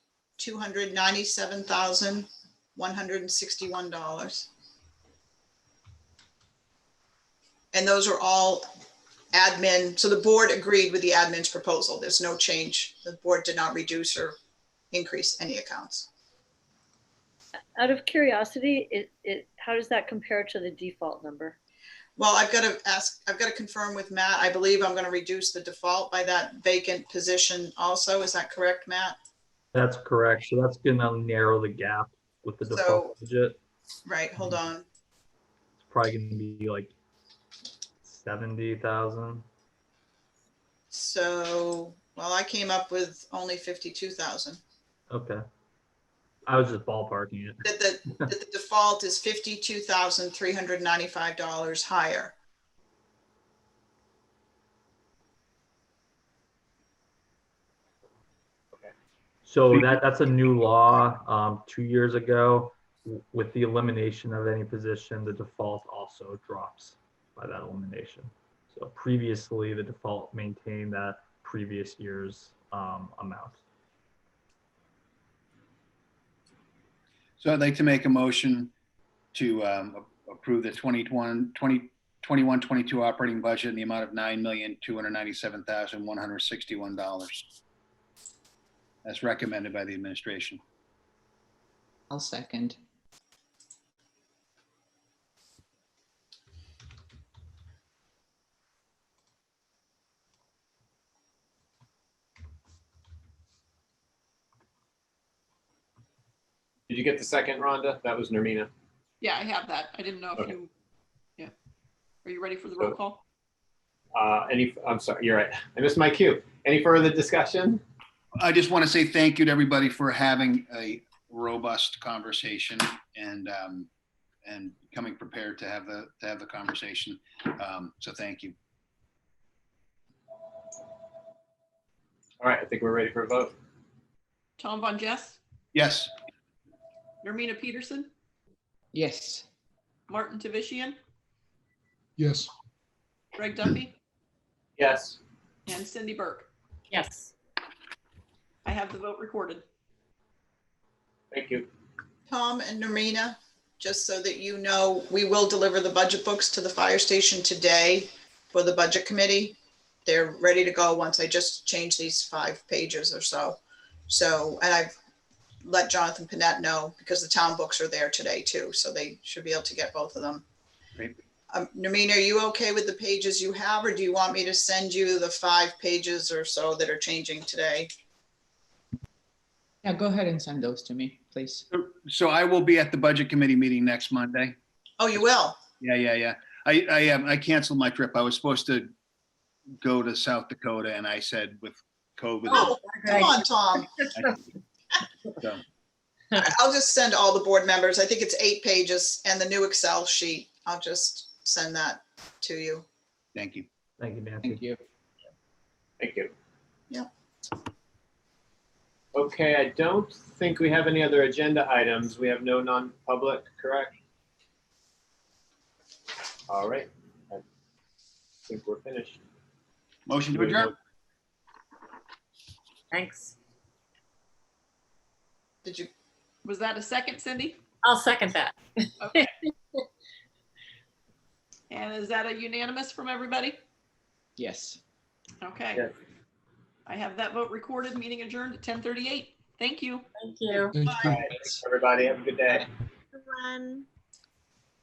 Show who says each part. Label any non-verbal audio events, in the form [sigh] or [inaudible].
Speaker 1: two hundred ninety-seven thousand, one hundred and sixty-one dollars. And those are all admin, so the board agreed with the admin's proposal. There's no change. The board did not reduce or increase any accounts.
Speaker 2: Out of curiosity, it, it, how does that compare to the default number?
Speaker 1: Well, I've got to ask, I've got to confirm with Matt. I believe I'm going to reduce the default by that vacant position also. Is that correct, Matt?
Speaker 3: That's correct. So that's gonna narrow the gap with the default budget.
Speaker 1: Right, hold on.
Speaker 3: It's probably gonna be like seventy thousand.
Speaker 1: So, well, I came up with only fifty-two thousand.
Speaker 3: Okay. I was just ballparking it.
Speaker 1: That the, that the default is fifty-two thousand, three hundred ninety-five dollars higher.
Speaker 3: So that, that's a new law, um, two years ago. W- With the elimination of any position, the default also drops by that elimination. So previously, the default maintained that previous year's, um, amount.
Speaker 4: So I'd like to make a motion to um, approve the 2021, 2021, 22 operating budget in the amount of $9,297,161. That's recommended by the administration.
Speaker 5: I'll second.
Speaker 6: Did you get the second, Rhonda? That was Nermina.
Speaker 7: Yeah, I have that. I didn't know if
Speaker 6: Okay.
Speaker 7: you, yeah. Are you ready for the roll
Speaker 6: So-
Speaker 7: call?
Speaker 6: Uh, any, I'm sorry, you're right. I missed my cue. Any further discussion?
Speaker 4: I just want to say thank you to everybody for having a robust conversation and, um, and coming prepared to have the, to have the conversation. Um, So thank you.
Speaker 6: All right, I think we're ready for a vote.
Speaker 7: Tom Von Jess,
Speaker 4: Yes,
Speaker 7: Nermina Peterson,
Speaker 5: Yes,
Speaker 7: Martin Tavishian,
Speaker 8: yes,
Speaker 7: Greg Duffy,
Speaker 6: Yes.
Speaker 7: and Cindy Burke.
Speaker 9: yes,
Speaker 7: I have the vote recorded.
Speaker 6: Thank you.
Speaker 1: Tom and Norina, just so that you know, we will deliver the budget books to the fire station today for the budget committee. They're ready to go once I just change these five pages or so. So, and I've let Jonathan Panett know because the town books are there today too, so they should be able to get both of them.
Speaker 4: Great.
Speaker 1: Um, Norina, are you okay with the pages you have, or do you want me to send you the five pages or so that are changing today?
Speaker 5: yeah, go ahead and send those to me, please.
Speaker 4: so I will be at the budget committee meeting next Monday.
Speaker 1: Oh, you will?
Speaker 4: Yeah, yeah, yeah. I, I, um, I canceled my trip. I was supposed to go to South Dakota and I said with COVID,
Speaker 1: Oh, come on, Tom.
Speaker 4: So,
Speaker 1: [laughs] I'll just send all the board members, I think it's eight pages, and the new Excel sheet. I'll just send that to you.
Speaker 4: thank you.
Speaker 3: Thank you, Nancy.
Speaker 5: Thank you.
Speaker 6: Thank you.
Speaker 1: Yeah.
Speaker 6: Okay, I don't think we have any other agenda items. We have no non-public, correct? All right. I think we're finished.
Speaker 4: Motion to adjourn.
Speaker 9: thanks.
Speaker 1: Did you,
Speaker 7: Was that a second, Cindy?
Speaker 9: I'll second that.
Speaker 7: Okay. And is that a unanimous from everybody?
Speaker 5: Yes.
Speaker 7: Okay.
Speaker 6: Yes.
Speaker 7: I have that vote recorded, meeting adjourned at 10:38. Thank you.
Speaker 9: Thank you.
Speaker 8: thank you.
Speaker 6: All right, Everybody, have a good day.
Speaker 9: Everyone.